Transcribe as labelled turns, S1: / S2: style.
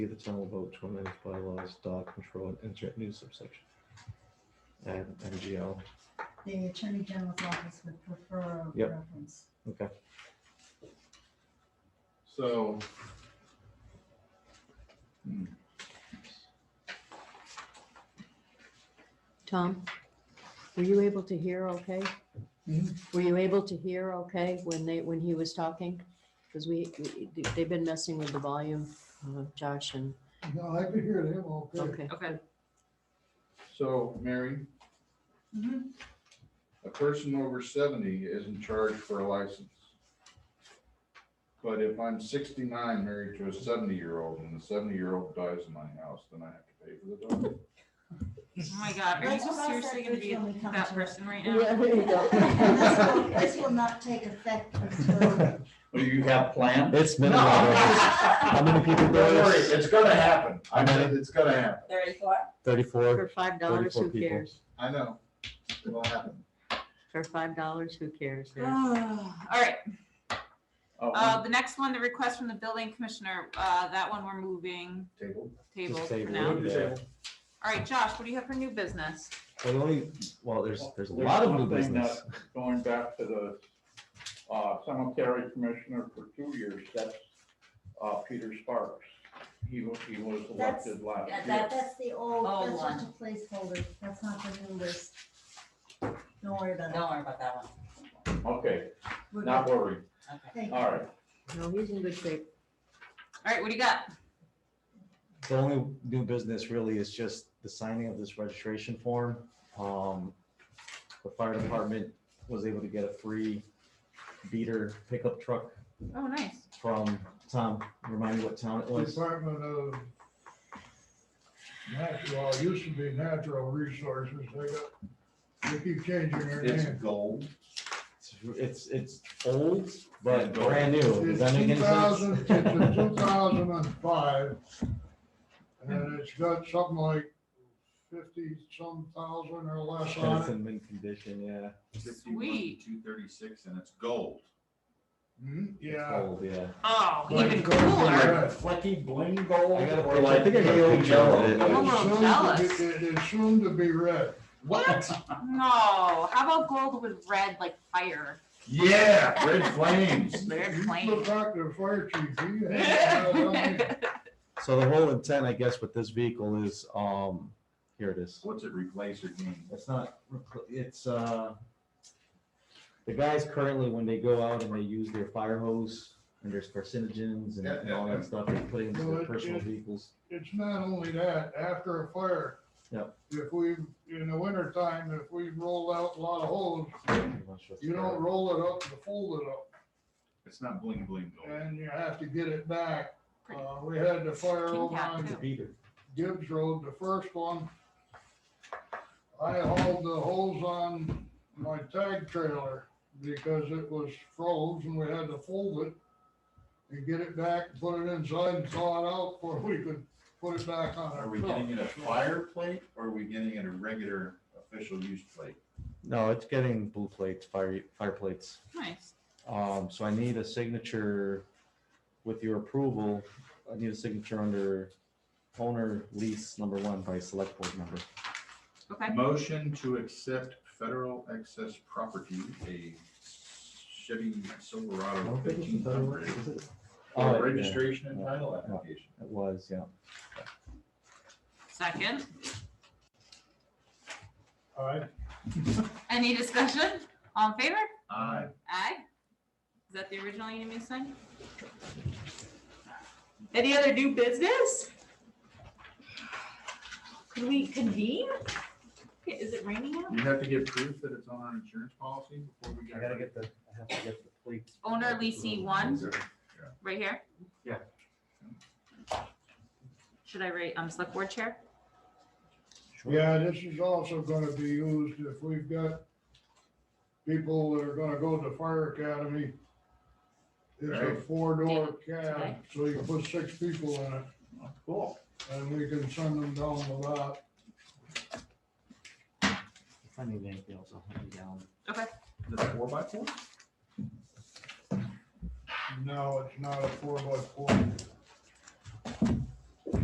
S1: the town will vote to amend its bylaws, dog control, and enter new subsection. Add MGL,
S2: The Attorney General's office would prefer a
S1: Yep.
S2: reference.
S1: okay.
S3: So.
S4: Tom, were you able to hear okay?
S3: Hmm?
S4: Were you able to hear okay when they, when he was talking? Because we, we- they've been messing with the volume, uh, Josh and,
S3: No, I could hear them all
S4: okay.
S5: Okay,
S3: So, Mary,
S5: Mm-hmm.
S2: Mhm.
S3: a person over seventy isn't charged for a license. But if I'm sixty-nine married to a seventy-year-old and the seventy-year-old dies in my house, then I have to pay for the dog?
S5: oh my God, are you
S2: That's what I
S5: seriously
S2: said
S5: gonna
S2: was
S5: be
S2: when we come
S5: that
S2: to it.
S5: person right
S4: Yeah,
S5: now?
S4: there you
S2: This will-
S4: go.
S2: This will not take effect until.
S3: Oh,
S6: Do you have planned?
S1: It's
S3: No.
S1: minimal. though. How many people
S3: Don't
S1: there
S3: worry,
S1: is?
S3: it's gonna happen. I
S1: How
S3: know,
S1: many?
S3: it's gonna happen.
S5: Thirty-four?
S1: Thirty-four,
S4: For five dollars,
S1: thirty-four
S4: who
S1: people.
S4: cares?
S3: I know. It'll happen.
S4: For five dollars, who cares? Yeah.
S5: Ah. All right,
S3: Oh,
S5: uh, the next one, the request from the building commissioner, uh, that one we're moving
S3: Table.
S5: tabled
S1: Just
S5: for
S1: table.
S5: now.
S1: it. Yeah.
S5: All right, Josh, what do you have for new business?
S1: Well, the only, well, there's, there's a lot of new
S6: something that-
S1: business.
S6: Going back to the uh, cemetery commissioner for two years, that's uh, Peter Sparks. He was, he was
S2: That's-
S6: elected last
S2: That,
S6: year.
S2: that's the old,
S7: Oh,
S2: that's
S7: one.
S2: just a placeholder. That's not the new list. Don't worry about it.
S7: Don't worry about that one.
S6: Okay,
S2: We're
S6: not
S2: good.
S6: worried.
S7: Okay.
S2: Thank you.
S6: All right.
S4: No, he's in good shape.
S5: All right, what do you got?
S1: The only new business really is just the signing of this registration form. Um, the fire department was able to get a free beater pickup truck
S5: Oh, nice.
S1: from Tom. Remind me what town it was.
S8: Department of Natural, well, it used to be Natural Resources, they got, they keep changing their
S3: It's
S8: name.
S3: gold.
S1: It's it's old, but
S3: It's gold.
S1: brand new. Does that make
S8: It's
S1: any
S8: two
S1: sense?
S8: thousand, it's a two thousand and five. And it's got something like fifty some thousand or less
S1: And
S8: on
S1: It's
S8: it.
S1: in mint condition, yeah.
S5: Sweet.
S3: Two thirty-six and it's gold.
S8: Mhm,
S1: It's
S8: Yeah.
S1: Old, yeah.
S5: Oh,
S8: But
S5: even
S8: it goes to
S5: cooler.
S8: red.
S6: Flecky bling gold.
S1: I got a
S6: or
S1: picture. I
S6: like
S1: think I got a
S6: pale
S1: picture of
S6: yellow?
S5: I'm a
S8: It's
S5: little
S8: soon to
S5: jealous.
S8: be- it- It's soon to be red.
S3: What?
S5: No, how about gold with red like fire?
S3: Yeah, red flames.
S5: Red
S8: You
S5: flame.
S8: Look back to the fire chief, he had, uh, I mean,
S1: So the whole intent, I guess, with this vehicle is, um, here it is.
S3: What's it replace or gain?
S1: It's not, repl- it's, uh, the guys currently, when they go out and they use their fire hose and there's carcinogens and and all that stuff, they put it into their personal vehicles.
S8: it's not only that, after a fire.
S1: Yep.
S8: If we, in the wintertime, if we roll out a lot of holes, you don't roll it up, you fold it up,
S3: It's not bling bling gold.
S8: and you have to get it back.
S5: Pretty.
S8: Uh, we had the fire
S5: King
S8: over
S5: Cat,
S8: on
S5: too.
S1: Beater.
S8: Gibbs Road, the first one. I hauled the holes on my tag trailer because it was froze and we had to fold it and get it back, put it inside and thaw it out before we could put it back on our
S3: Are we
S8: truck.
S3: getting it a fire plate or are we getting it a regular official use plate?
S1: No, it's getting blue plates, fire, fire plates.
S5: Nice.
S1: Um, so I need a signature with your approval. I need a signature under owner lease number one by select board member.
S5: Okay,
S3: Motion to accept federal excess property, a Chevy Silverado fifteen hundred.
S1: Oh, yeah.
S3: For registration and title
S1: Yeah.
S3: application.
S1: It was, yeah.
S5: second.
S8: All right,
S5: Any discussion? All in favor?
S3: Aye.
S5: Aye. Is that the original you need me to sign? Any other new business? Could we convene? Okay, Is it raining out?
S3: You have to get proof that it's on our insurance policy before we get. it.
S1: the, I have to get the plates.
S5: Owner leasing one, right here?
S1: Yeah.
S5: Should I write, um, select board chair?
S8: yeah, this is also gonna be used if we've got people that are gonna go to the fire academy. It's a
S3: Right.
S8: four-door cab,
S5: Okay.
S8: so you put six people in it
S3: Cool.
S8: and we can send them down the lot.
S1: If I need anything else, I'll hunt you down.
S3: The four by four?
S8: No, it's not a four by four.